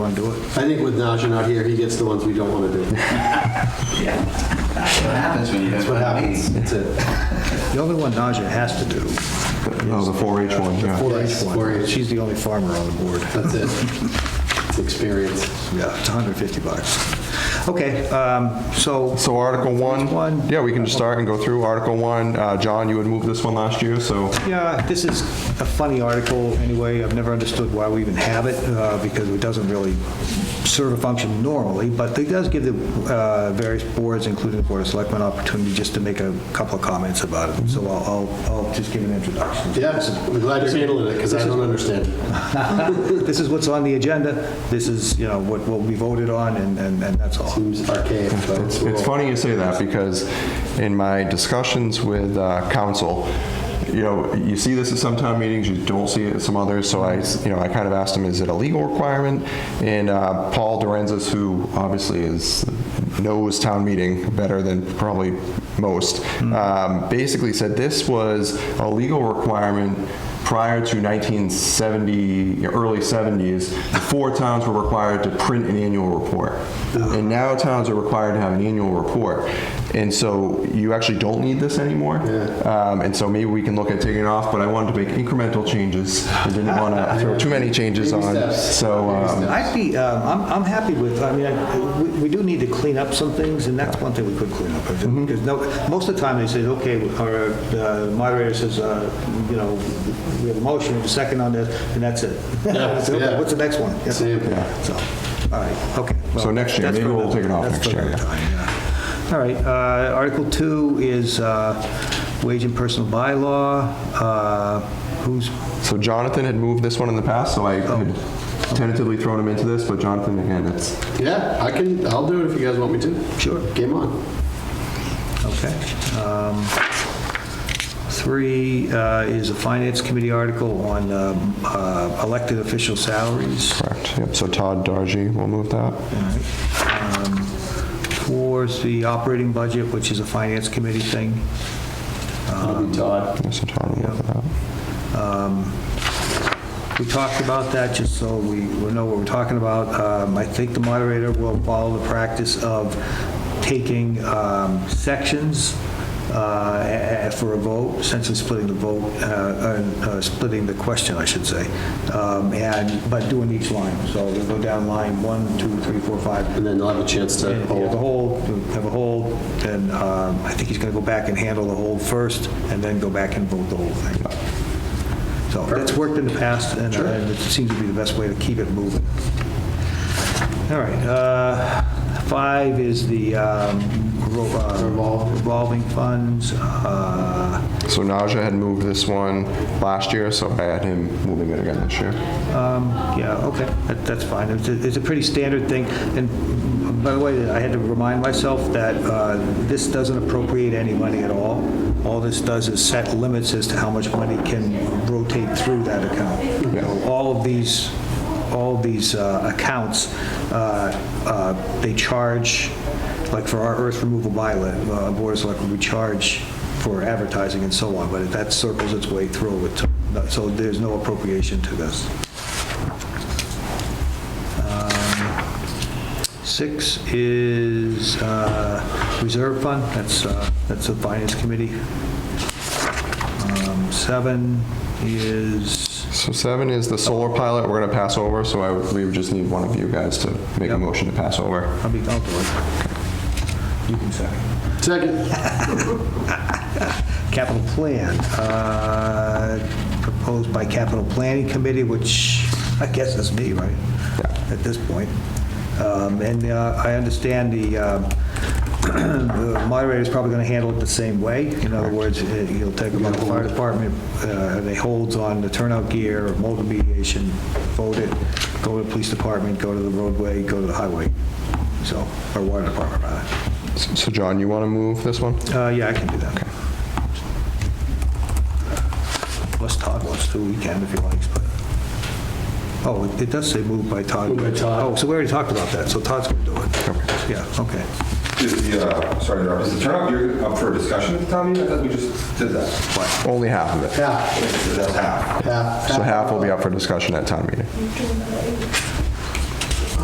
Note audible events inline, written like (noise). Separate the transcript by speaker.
Speaker 1: Want to do it?
Speaker 2: I think with Najah not here, he gets the ones we don't want to do.
Speaker 3: That's what happens when you
Speaker 2: That's what
Speaker 3: have meetings.
Speaker 2: happens. That's it.
Speaker 1: The only one Naja has to do.
Speaker 4: Oh, the 4-H one, yeah.
Speaker 1: The
Speaker 2: Yes,
Speaker 1: 4-H one.
Speaker 2: 4-H.
Speaker 1: She's the only farmer on the board.
Speaker 2: That's it. It's experience.
Speaker 1: Yeah, it's 150 bucks. Okay, um, so
Speaker 4: So Article 1,
Speaker 1: One.
Speaker 4: yeah, we can just start and go through. Article 1, uh, John, you had moved this one last year, so
Speaker 1: Yeah, this is a funny article anyway. I've never understood why we even have it uh, because it doesn't really serve a function normally, but it does give the uh, various boards, including the Board of Selectmen, opportunity just to make a couple of comments about it. So I'll, I'll I'll just give an introduction.
Speaker 2: Yeah, I'm glad you're handling it because I don't understand.
Speaker 1: This is what's on the agenda. This is, you know, what what we voted on and and and that's all.
Speaker 2: Seems archaic, but it's
Speaker 4: it's
Speaker 2: cool.
Speaker 4: funny you say that because in my discussions with uh, council, you know, you see this at some town meetings, you don't see it at some others, so I, s- you know, I kind of asked him, is it a legal requirement? And uh, Paul Durensis, who obviously is, knows town meeting better than probably most, um, basically said this was a legal requirement prior to 1970, early 70s, the four towns were required to print an annual report.
Speaker 2: Uh-huh.
Speaker 4: And now towns are required to have an annual report. And so you actually don't need this anymore. Um, And so maybe we can look at taking it off, but I wanted to make incremental changes. I didn't
Speaker 2: (laughs)
Speaker 4: want to throw too many changes
Speaker 2: Baby
Speaker 4: on.
Speaker 2: steps.
Speaker 4: So,
Speaker 2: Baby
Speaker 4: um,
Speaker 2: steps.
Speaker 1: I'd be, um, I'm, I'm happy with, I mean, I- we, we do need to clean up some things, and that's one thing we could clean up.
Speaker 4: Mm-hmm.
Speaker 1: Because no, most of the time, they say, okay, our uh, moderator says, uh, you know, we have a motion, we have a second on this, and that's it. (laughs)
Speaker 2: Yeah,
Speaker 1: I said, okay,
Speaker 2: yeah.
Speaker 1: What's the next one? Yeah.
Speaker 2: Same.
Speaker 1: So, all right, okay. well,
Speaker 4: So next year,
Speaker 1: that's
Speaker 4: maybe
Speaker 1: for
Speaker 4: we'll
Speaker 1: another-
Speaker 4: take it off
Speaker 1: that's
Speaker 4: next
Speaker 1: for
Speaker 4: year,
Speaker 1: another
Speaker 4: yeah.
Speaker 1: time, All right, uh, Article 2 is uh, wage and personal bylaw. Uh, Who's,
Speaker 4: so Jonathan had moved this one in the past, so I
Speaker 2: Oh.
Speaker 4: had tentatively thrown him into this, but Jonathan, again, it's,
Speaker 2: Yeah, I can, I'll do it if you guys want me to.
Speaker 1: Sure.
Speaker 2: Game on.
Speaker 1: Okay. Um, Three uh, is a Finance Committee article on um, uh, elected official salaries.
Speaker 4: correct. Yep, so Todd Darji will move that.
Speaker 1: Um, Four is the operating budget, which is a Finance Committee thing.
Speaker 2: I'll be Todd.
Speaker 4: So Todd will move that.
Speaker 1: Um, We talked about that, just so we we know what we're talking about. Um, I think the moderator will follow the practice of taking um, sections uh, a- a- for a vote, essentially splitting the vote, uh, uh, uh, splitting the question, I should say, um, and, but doing each line. So we'll go down line one, two, three, four, five,
Speaker 2: And then you'll have a chance to
Speaker 1: and if you have a
Speaker 2: hold.
Speaker 1: hold, have a hold, then um, I think he's going to go back and handle the hold first, and then go back and vote the whole thing. So that's worked in the past, and uh, and it seems to be the best way to keep it moving. All right, uh, five is the um, ro- uh, revolving funds. uh,
Speaker 4: So Naja had moved this one last year, so I had him moving it again this year.
Speaker 1: Um, Yeah, okay, that- that's fine. It's a- it's a pretty standard thing. And by the way, I had to remind myself that uh, this doesn't appropriate any money at all. All this does is set limits as to how much money can rotate through that account. You know, All of these, all of these uh, accounts, uh, uh, they charge, like for our earth removal bylaw, uh, Board of Selectmen, we charge for advertising and so on, but that circles its way through it. So there's no appropriation to this. Six is uh, reserve fund, that's, uh, that's the finance committee. Um, Seven is,
Speaker 4: So seven is the solar pilot we're going to pass over, so I, would- we would just need one of you guys to make a
Speaker 1: Yep.
Speaker 4: motion to pass over.
Speaker 1: I'll be, I'll do it. You can second.
Speaker 2: Second.
Speaker 1: Capital plan, uh, proposed by capital planning committee, which I guess is me, right? At this point. Um, And uh, I understand the, um, (clears throat) the moderator's probably going to handle it the same way. In other words, uh, he'll take about the fire department, uh, they holds on the turnout gear, motor mediation, vote it, go to the police department, go to the roadway, go to the highway, so, or water department, rather.
Speaker 4: S- So John, you want to move this one?
Speaker 1: Uh, yeah, I can do that. Unless Todd wants to, we can if he likes, but, oh, it- it does say moved by Todd.
Speaker 2: Moved by Todd.
Speaker 1: Oh, so we already talked about that, so Todd's going to do it. Yeah, okay.
Speaker 5: Is the, uh, sorry, to interrupt. is the turnout gear up for discussion at the town meeting? I thought we just did that.
Speaker 4: Only half of it.
Speaker 2: Half,
Speaker 5: That's half.
Speaker 2: half.
Speaker 4: So half will be up for discussion at town meeting.